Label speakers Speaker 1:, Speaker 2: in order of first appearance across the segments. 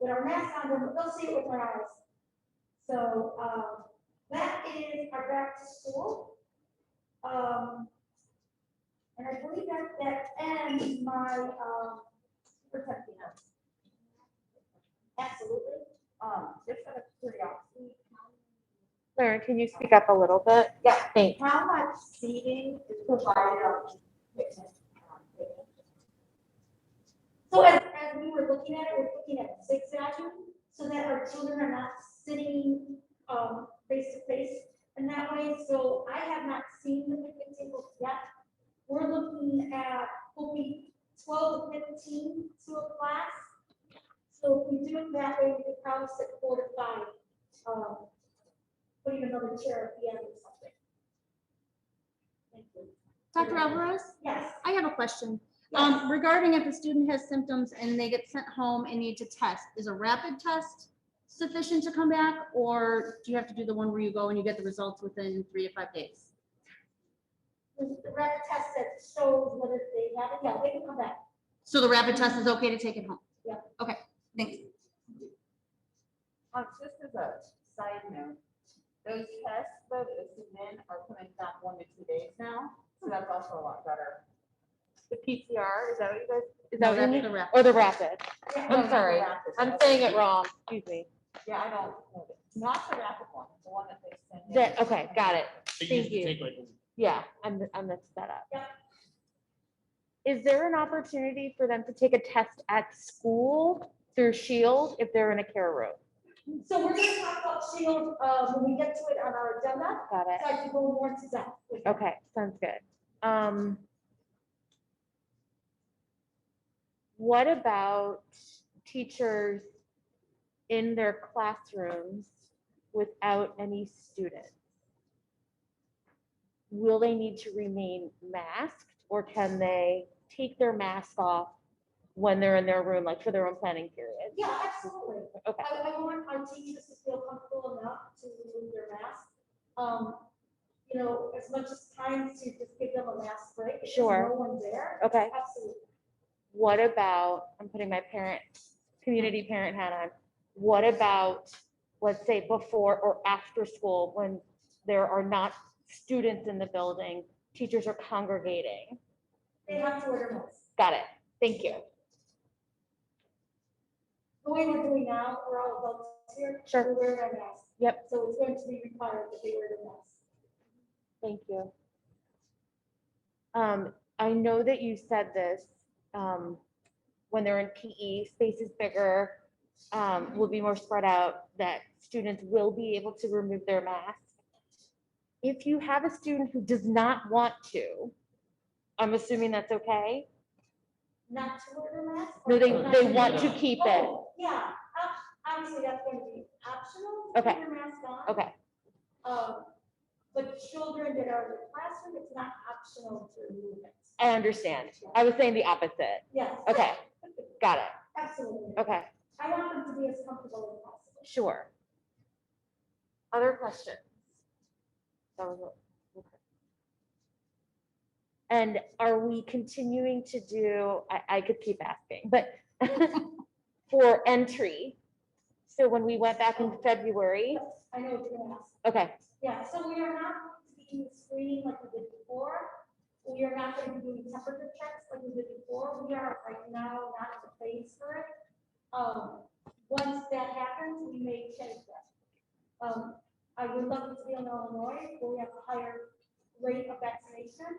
Speaker 1: with our masks on, but they'll see it with their eyes. So, um, that is our back to school. Um, and I believe that, that ends my, um, protecting us. Absolutely, um, just out of curiosity.
Speaker 2: Laura, can you speak up a little bit?
Speaker 1: Yeah.
Speaker 2: Thanks.
Speaker 1: How much seating is provided on fitness? So as, as we were looking at it, we're looking at six statute, so that our children are not sitting, um, face to face in that way, so I have not seen the picnic tables yet. We're looking at, will be twelve to fifteen to a class. So if we do it that way, we could probably sit four to five, um, putting another chair at the end or something. Thank you.
Speaker 3: Dr. Alvarez,
Speaker 1: Yes.
Speaker 3: I have a question.
Speaker 1: yes.
Speaker 3: Um, regarding if a student has symptoms and they get sent home and need to test, is a rapid test sufficient to come back? Or do you have to do the one where you go and you get the results within three to five days?
Speaker 1: The rapid test that shows whether they have it, yeah, they can come back.
Speaker 3: So the rapid test is okay to take it home?
Speaker 1: Yeah.
Speaker 3: Okay, thanks.
Speaker 4: Um, just as a side note, those tests that is in are coming down one to two days now, so that's also a lot better.
Speaker 2: The PCR, is that what you guys, is that
Speaker 3: No,
Speaker 2: what you
Speaker 3: that's
Speaker 2: mean?
Speaker 3: the rapid.
Speaker 2: Or the rapid?
Speaker 1: Yeah.
Speaker 2: I'm sorry, I'm saying it wrong, excuse me.
Speaker 4: Yeah, I don't, know that- not the rapid one, the one that they send. in.
Speaker 2: That- okay, got it.
Speaker 5: So
Speaker 2: Thank
Speaker 5: you just
Speaker 2: you.
Speaker 5: take like
Speaker 2: Yeah, I'm, I'm messed that up.
Speaker 1: Yeah.
Speaker 2: Is there an opportunity for them to take a test at school through Shield if they're in a care room?
Speaker 1: So we're gonna talk about Shield, uh, when we get to it on our agenda,
Speaker 2: Got it.
Speaker 1: so I can go more to that. with you.
Speaker 2: Okay, sounds good. Um. What about teachers in their classrooms without any students? Will they need to remain masked or can they take their mask off when they're in their room, like for their own planning period?
Speaker 1: Yeah, absolutely.
Speaker 2: Okay,
Speaker 1: I, I want our teachers to feel comfortable enough to remove their mask. Um, you know, as much as time to just give them a mask break. if there's
Speaker 2: Sure.
Speaker 1: No one there,
Speaker 2: okay.
Speaker 1: absolutely.
Speaker 2: what about, I'm putting my parent, community parent hat on, what about, let's say, before or after school, when there are not students in the building, teachers are congregating?
Speaker 1: They have to wear their masks.
Speaker 2: Got it, thank you.
Speaker 1: The way we're doing now, we're all adults here.
Speaker 2: Sure.
Speaker 1: We're wearing our masks.
Speaker 2: Yep.
Speaker 1: So it's going to be required that they wear their masks.
Speaker 2: Thank you. Um, I know that you said this, um, when they're in PE, space is bigger, um, will be more spread out, that students will be able to remove their mask. If you have a student who does not want to, I'm assuming that's okay?
Speaker 1: Not to wear their masks? or
Speaker 2: No, they,
Speaker 1: not
Speaker 2: they
Speaker 1: to
Speaker 2: want
Speaker 1: wear
Speaker 2: to
Speaker 1: them?
Speaker 2: keep it.
Speaker 1: Oh, Yeah, ob- obviously that's going to be optional. to
Speaker 2: Okay.
Speaker 1: Put your mask on.
Speaker 2: Okay,
Speaker 1: Um, But children that are in the classroom, it's not optional to remove it.
Speaker 2: I understand. I was saying the opposite.
Speaker 1: Yes.
Speaker 2: Okay, got it.
Speaker 1: Absolutely.
Speaker 2: Okay,
Speaker 1: I want them to be as comfortable as possible.
Speaker 2: sure. Other questions? That was it. And are we continuing to do, I, I could keep asking, but for entry? So when we went back in February,
Speaker 1: I know what you're going to ask.
Speaker 2: okay,
Speaker 1: Yeah, so we are not going to be doing screening like we did before. We are not going to be doing temperature checks like we did before. We are right now not in the phase for it. Um, once that happens, we may change that. Um, I would love it to be in Illinois, where we have a higher rate of vaccination.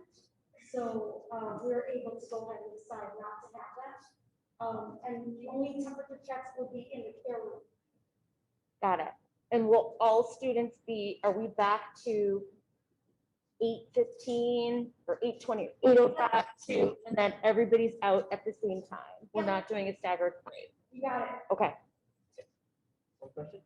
Speaker 1: So, uh, we're able to go ahead and decide not to have that. Um, and the only temperature checks will be in the care room.
Speaker 2: got it. And will all students be, are we back to eight fifteen or eight twenty, eight oh five, two? And then everybody's out at the same time? We're not doing a staggered grade?
Speaker 1: You got it.
Speaker 2: Okay,
Speaker 5: one question?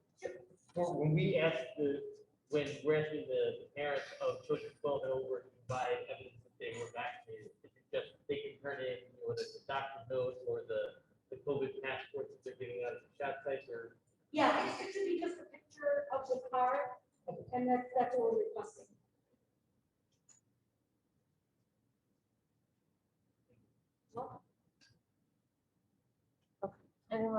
Speaker 5: Well, When we ask the, when we're asking the parents of children twelve and over to provide evidence that they were vaccinated, is it just they can turn in, or the doctor's note, or the, the COVID passports that they're giving out at the shot sites, or?
Speaker 1: Yeah, it should be just a picture of the car, and that's, that's what we're requesting.
Speaker 2: anyone